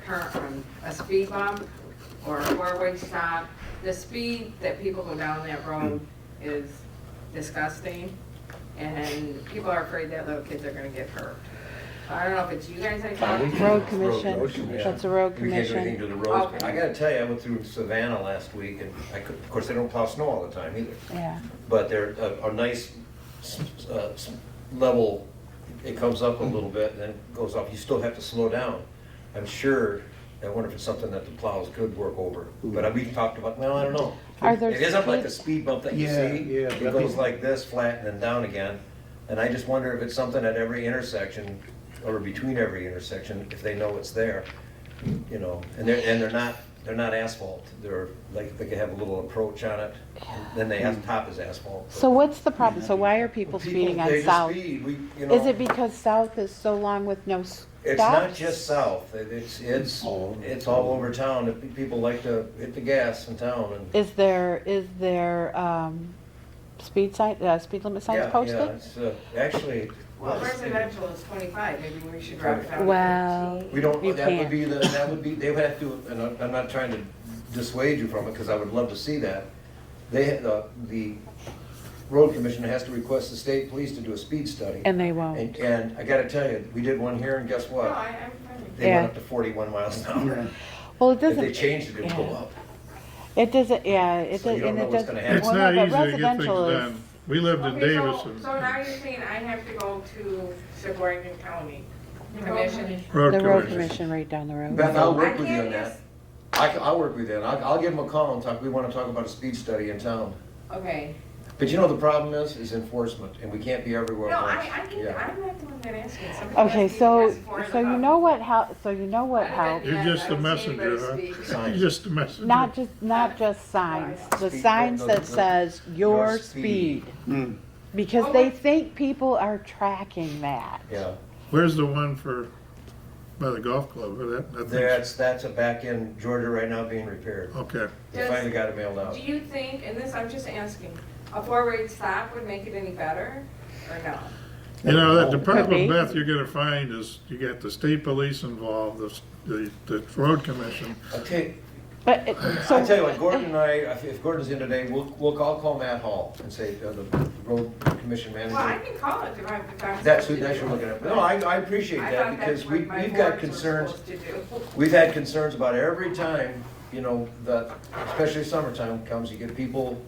turn, um, a speed bump or a four-way stop. The speed that people go down that road is disgusting, and people are afraid that little kids are gonna get hurt. I don't know if it's you guys I talked to. Road commission. Road commission. That's a road We can't do commission. anything to the Oh. roads. I gotta tell you, I went through Savannah last week, and I could, of course, they don't plow snow all the time either. Yeah, But they're a, a nice, s- uh, s- level, it comes up Mm-hmm. a little bit, and then goes up, you still have to slow down. I'm sure, I wonder if it's something that the plows could work over, but we talked about, well, I don't know. Are there It isn't like the speed- speed bump that you Yeah, see. yeah, It but- goes like this, flat, and then down again, and I just wonder if it's something at every intersection, or between every intersection, if they know it's there, you know, and they're, and they're not, they're not asphalt, they're, like, they could have a little approach on it, and then they have, top is asphalt. so what's the problem? So why are people People, speeding on they just South? speed, we- you Is know. it because South is so long with no stops? It's not just south, It- it's, it's, All over. it's all over town, If pe- people like to hit the gas in town and. Is there, is there, um, speed sign, uh, speed limit Yeah, signs yeah, posted? it's, uh, Actually. Well, it's- residential is twenty-five, maybe we should drop it down to Well- fifteen. We don't, You that would can't. be the, that would be, they would have to, and I'm- I'm not trying to dissuade you from it, because I would love to see that. They, the, the road commissioner has to request the state police to do a speed study. And they won't. And, and I gotta tell you, we did one here, and guess No, what? I, I'm fine with They went Yeah. up to forty-one miles an hour. Well, it If they doesn't, changed it, it'd go yeah. up. it doesn't, yeah, it So you doesn't, don't and know it what's doesn't. gonna happen. It's well, not no, but easy to get things residential is- done. We lived in Okay, so- Davison. So now you're saying I have to go to Sheboygan County Commission? The road commission right down the road. Beth, I'll I work with you can't on just- that. I, can- I'll work with you, and I'll, I'll give them a call and talk, we wanna talk about a speed study in town. Okay, But you know, the problem is, is enforcement, and we can't be everywhere. no, at once. I, I can, Yeah. I'm not the one that asked it. Somebody Okay, asked me so, to ask for it so you about- know what help, so you know what I haven't help? been You're yet. just I the haven't seen messenger, anybody huh? speak. Signs. Just a messenger. Not just, not just signs, the Speed signs that bump doesn't- says your Your speed. speed. Mm. Because Oh, they what- think people are tracking that. Yeah, Where's the one for, by the golf club, or that, that thing's- that's, that's a back in Georgia right now being repaired. Okay, They finally got it mailed out. Do you think, and this, I'm just asking, a four-way stop would make it any better, or no? you know, that, the be. problem, Beth, you're gonna find is, you got the state police involved, the, s- the, the road commission. I'll tell you, But, it- so. I'll tell you what, Gordon and I, if if Gordon's in today, we'll, we'll, I'll call Matt Hall and say, uh, the road commission Well, I manager. can call it if I, if I'm. That's who, supposed to that's do who we're looking it. at. No, I, I appreciate I that thought because that's we, what my we've got boards were concerns. supposed to do. We've had concerns about every time, you know, that, especially summertime comes, you get people,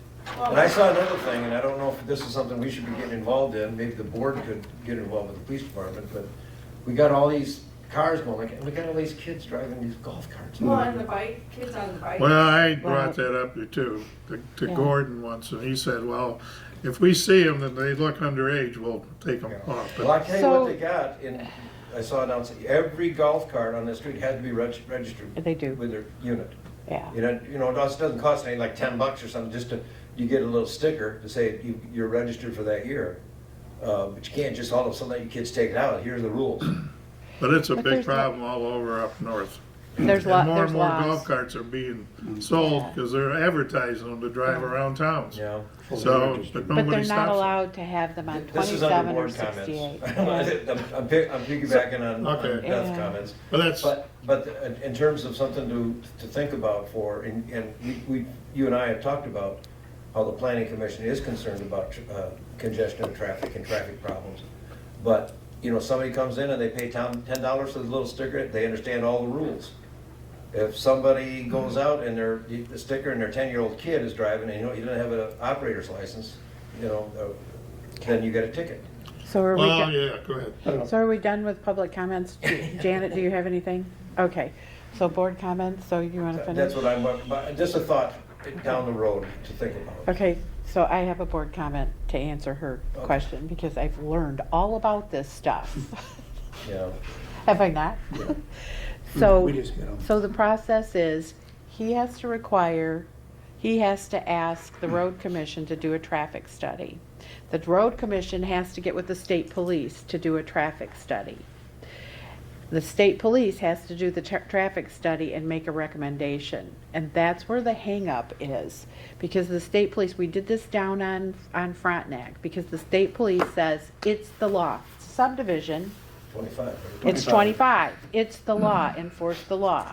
and I saw another thing, and I don't know if this is something we should be getting involved in, maybe the board could get involved with the police department, but we got all these cars going, like, we got all these kids driving these golf carts. Well, on the bike, kids on the bike. Well, I Well- brought that up too, to, to Yeah. Gordon once, and he said, well, if we see them and they look underage, we'll take them off. Well, I But tell you So- what they got, and I saw it announced, every golf cart on the street had to be reg- registered. They do. With their unit. Yeah. You know, you know, it doesn't doesn't cost any, like ten bucks or something, just to, you get a little sticker to say you, you're registered for that year. Uh, but you can't just all of a sudden let your kids take it out, here are the rules. But it's a But big there's not- problem all over up north. There's And lot, more there's and more golf lots. carts are being sold because they're advertising them to drive around towns. Yeah. So, But but they're nobody not stops. allowed to have them on This is under twenty-seven or board sixty-eight. comments. Yeah. I'm I'm pick- I'm piggybacking on on Okay. Beth's Yeah. comments. it. But that's, But, but uh, in- in terms of something to, to think about for, and, and we, we, you and I have talked about how the planning commission is concerned about uh, congestion of traffic and traffic problems. But, you know, somebody comes in and they pay town ten dollars for the little sticker, they understand all the rules. If somebody goes out and their, the sticker and their ten-year-old kid is driving and you know, you don't have an operator's license, you know, uh, then you get a ticket. So are we, well, do- yeah, go ahead. so are we done with public comments? Janet, do you have anything? Okay, so board comments, so you wanna finish? That's what I'm, but just a thought down the road to think about. Okay, so I have a board comment to answer her Okay. question, because I've learned all about this stuff. Yeah. Have I not? We So, just get 'em. so the process is, he has to require, he has to ask the road commission to do a traffic study. The road commission has to get with the state police to do a traffic study. The state police has to do the tra- traffic study and make a recommendation. And that's where the hangup is, because the state police, we did this down on, on Frontenac, because the state police says it's the law. Subdivision, twenty-five. right? It's 25. It's the law, enforce the law.